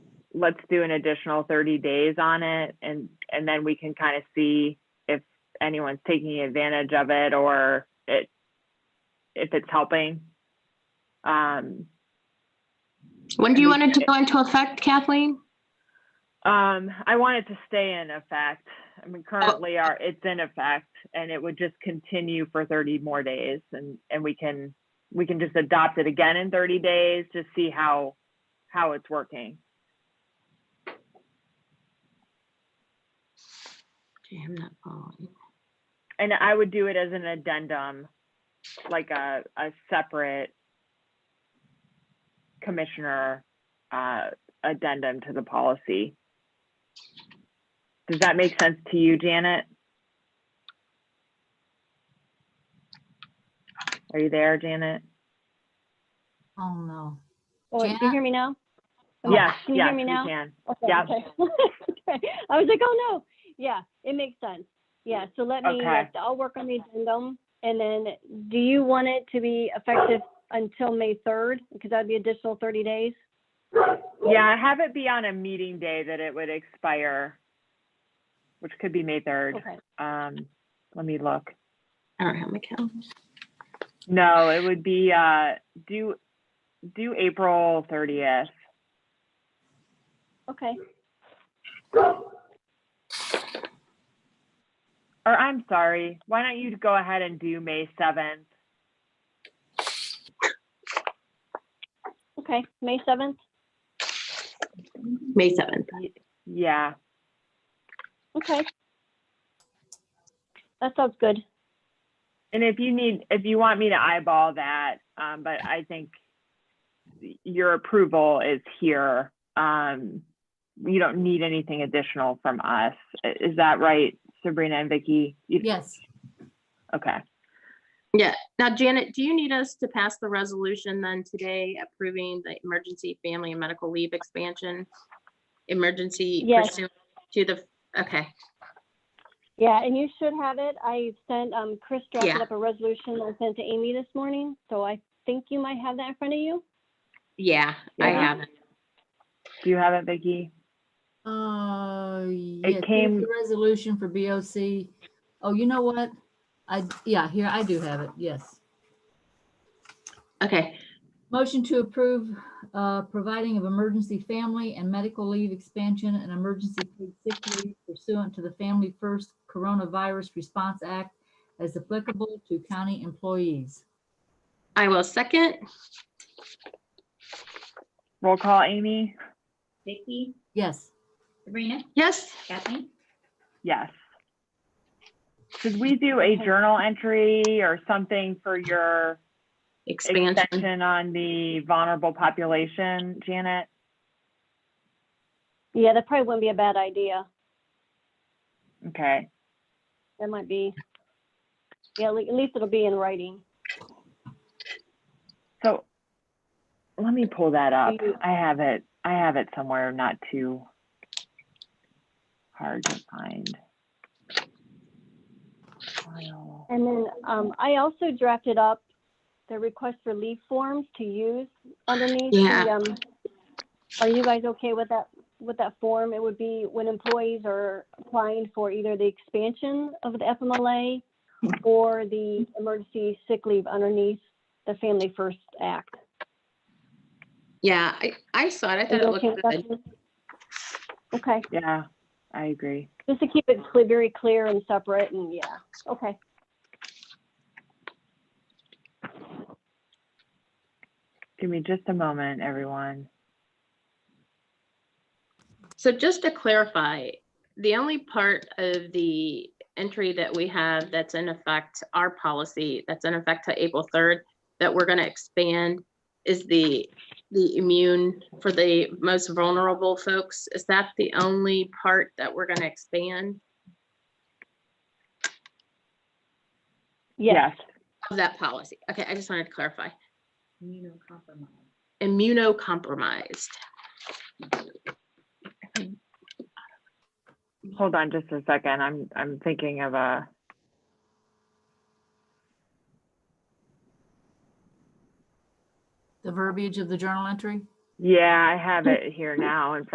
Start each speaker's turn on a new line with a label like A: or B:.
A: let's do an additional thirty days on it and, and then we can kind of see if anyone's taking advantage of it or it, if it's helping. Um,
B: When do you want it to
A: It-
B: go into effect, Kathleen?
A: Um, I want it to stay in effect. I mean, currently our, it's in effect and it would just continue for thirty more days and, and we can, we can just adopt it again in thirty days to see how, how it's working.
B: Okay, I'm not following.
A: And I would do it as an addendum, like a, a separate commissioner, uh, addendum to the policy. Does that make sense to you, Janet? Are you there, Janet?
B: Oh, no.
C: Oh, wait, do
B: Janet?
C: you hear me now? Okay,
A: Yes,
C: Oh, Can you
A: yes,
C: hear me
A: we
C: now?
A: can.
C: Okay,
A: Yep.
C: okay. Okay. I was like, oh no, yeah, it makes sense. Yeah, so let me,
A: Okay.
C: like, I'll work on the addendum. And then, do you want it to be effective until May third? Because that'd be additional thirty days.
A: Yeah, have it be on a meeting day that it would expire, which could be May 3rd.
C: Okay,
A: Um, let me look.
B: I don't have my calendar.
A: No, it would be uh due due April thirtieth.
C: okay.
A: Or I'm sorry, why don't you go ahead and do May seventh?
C: Okay, May seventh?
B: May 7th.
A: Yeah,
C: Okay. That sounds good.
A: and if you need, if you want me to eyeball that, um, but I think your approval is here. Um, you don't need anything additional from us. I- Is that right, Sabrina and Vicky? You-
D: Yes,
A: Okay.
B: Now, Janet, do you need us to pass the resolution then today approving the emergency family and medical leave expansion? Emergency
C: Yes.
B: pursuant to the, okay,
C: Yeah, and you should have it. I sent, um, Chris drafted
B: Yeah.
C: up a resolution I sent to Amy this morning, so I think you might have that in front of you.
B: yeah, I
A: Yeah.
B: have it.
A: Do you have it, Vicky?
D: uh, yes, there's
A: came-
D: the resolution for BOC. Oh, you know what? I, yeah, here, I do have it, yes.
B: Okay,
D: Motion to approve, uh, providing of emergency family and medical leave expansion and emergency paid sick leave pursuant to the Family First Coronavirus Response Act as applicable to county employees.
B: I will second.
A: Roll call, Amy?
E: Vicky,
D: Yes.
E: Sabrina,
B: Yes,
E: Kathleen,
A: Yes. Should we do a journal entry or something for your
B: expansion.
A: extension on the vulnerable population, Janet?
C: Yeah, that probably wouldn't be a bad idea.
A: Okay,
C: That might be, yeah, at le- at least it'll be in writing.
A: so let me pull that up.
C: you-
A: I have it, I have it somewhere not too hard to find. File.
C: And then um, I also drafted up the request for leave forms to use underneath. the,
B: Yeah.
C: um, Are you guys okay with that, with that form? It would be when employees are applying for either the expansion of the FMLA or the emergency sick leave underneath the Family First Act.
B: Yeah, I, I saw it. I thought it
C: Are you okay
B: looked
C: with
B: good.
C: that? Okay,
A: Yeah, I agree.
C: just to keep it cle- very clear and separate and yeah, okay.
A: Give me just a moment, everyone.
B: So just to clarify, the only part of the entry that we have that's in effect, our policy that's in effect to April third, that we're gonna expand is the, the immune for the most vulnerable folks. Is that the only part that we're gonna expand
C: Yes,
B: of that policy? Okay, I just wanted to clarify.
E: immunocompromised.
B: Immunocompromised.
A: Hold on just a second. I'm, I'm thinking of a.
D: The verbiage of the journal entry?
A: Yeah, I have it here now in front